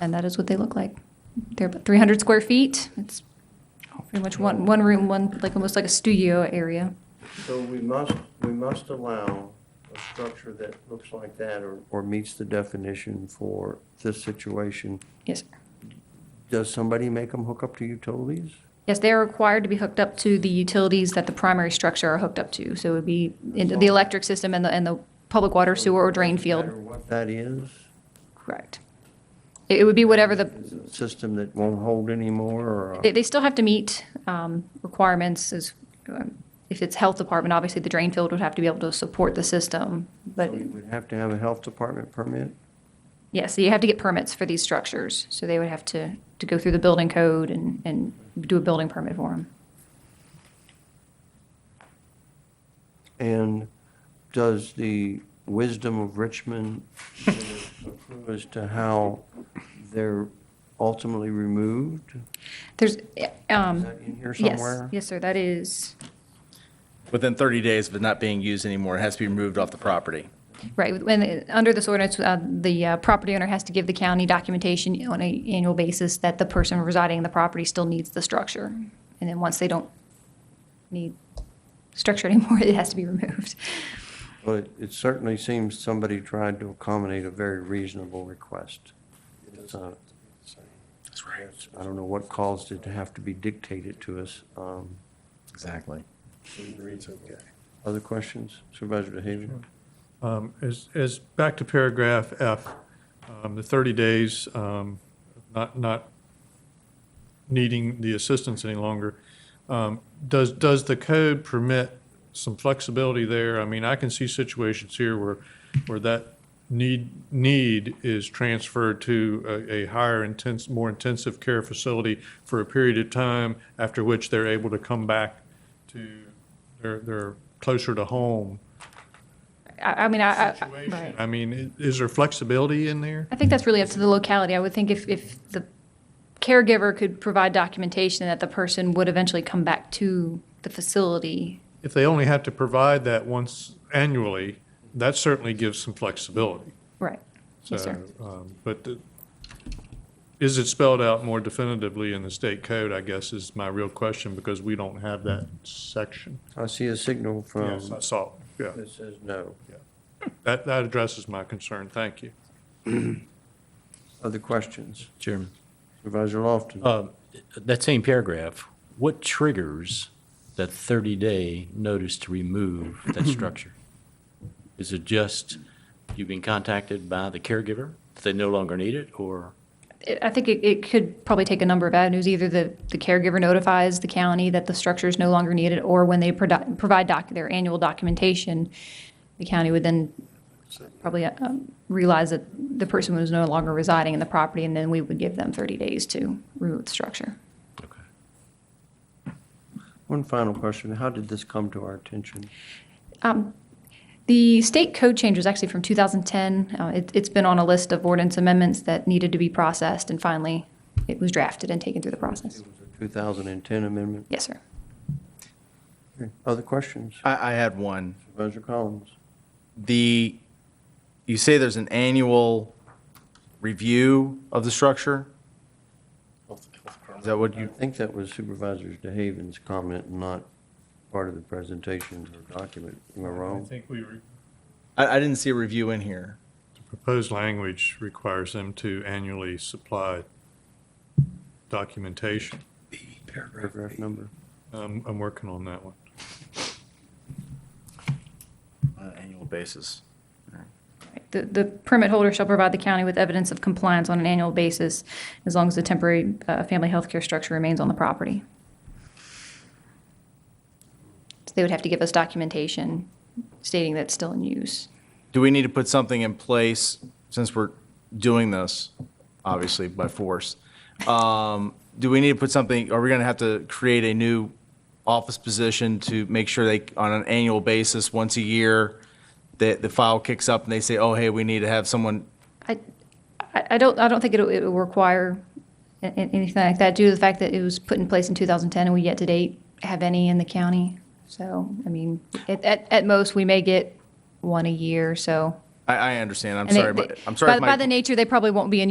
And that is what they look like. They're about 300 square feet. It's pretty much one, one room, one, like almost like a studio area. So we must, we must allow a structure that looks like that or, or meets the definition for this situation. Yes, sir. Does somebody make them hook up to utilities? Yes, they are required to be hooked up to the utilities that the primary structure are hooked up to. So it would be in the electric system and the, and the public water sewer or drain No matter field. what that is? Correct. It it would be whatever the, Is it a System that won't hold anymore or? They, they still have to meet um, requirements as, um, if it's health department, obviously the drain field would have to be able to support the system. But We would have to have a health department permit? yeah, so you have to get permits for these structures. So they would have to, to go through the building code and, and do a building permit for them. And does the wisdom of Richmond accrue as to how they're ultimately removed? There's, Is um, that in here yes, somewhere? yes, sir, that is, Within 30 days of it not being used anymore, it has to be removed off the property. right. When, it- under this ordinance, uh, the uh, property owner has to give the county documentation on an annual basis that the person residing in the property still needs the structure. And then once they don't need structure anymore, it has to be removed. Well, it- it certainly seems somebody tried to accommodate a very reasonable request. It's, uh, That's right. I don't know what caused it to have to be dictated to us. Um, Exactly. Other questions? Supervisor DeHaven? Um, As, as, back to paragraph F, um, the 30 days, um, not, not needing the assistance any longer. Um, Does, does the code permit some flexibility there? I mean, I can see situations here where, where that need, need is transferred to a, a higher intense, more intensive care facility for a period of time, after which they're able to come back to, they're, they're closer to home I, I mean, I, I, situation. right. I mean, i- is there flexibility in there? I think that's really up to the locality. I would think if, if the caregiver could provide documentation that the person would eventually come back to the facility. If they only have to provide that once annually, that certainly gives some flexibility. Right. Yes, sir. So, um, But the- is it spelled out more definitively in the state code, I guess, is my real question, because we don't have that section. I see a signal from, Yes, I saw, it. yeah. that says no. That, that addresses my concern, thank you. Other questions? Chairman. Supervisor Lofton? Uh, That same paragraph, what triggers that 30-day notice to remove that structure? Is it just you've been contacted by the caregiver, that they no longer need it, or? It- I think it, it could probably take a number of avenues. Either the, the caregiver notifies the county that the structure is no longer needed, or when they produ- provide doc, their annual documentation, the county would then probably uh, um, realize that the person was no longer residing in the property, and then we would give them 30 days to remove the structure. Okay. One final question. How did this come to our attention? Um, The state code change was actually from 2010. Uh, it, it's been on a list of ordinance amendments that needed to be processed, and finally, it was drafted and taken through the process. It was a 2010 amendment. Yes, sir. Okay. Other questions? I, I had one. Supervisor Collins? The, you say there's an annual review of the structure? Is that what I you, think that was Supervisor DeHaven's comment, not part of the presentation or document. Am I I wrong? think we, re- I, I didn't see a review in here. the proposed language requires them to annually supply documentation. Um, Paragraph number. I'm, I'm working on that one. On an annual basis. The, the permit holder shall provide the county with evidence of compliance on an annual basis, as long as the temporary uh, family health care structure remains on the property. So they would have to give us documentation stating that it's still in use. Do we need to put something in place, since we're doing this, obviously by force? um, Do we need to put something, are we going to have to create a new office position to make sure they, on an annual basis, once a year, that the file kicks up and they say, oh, hey, we need to have someone, I, I I don't, I don't think it'll, it'll require a- a- anything like that due to the fact that it was put in place in 2010 and we yet to date have any in the county. So, I mean, at, at, at most, we may get one a year, so. I, I understand, I'm and they- sorry, but, they- I'm sorry. by- if my- By the nature, they probably won't be in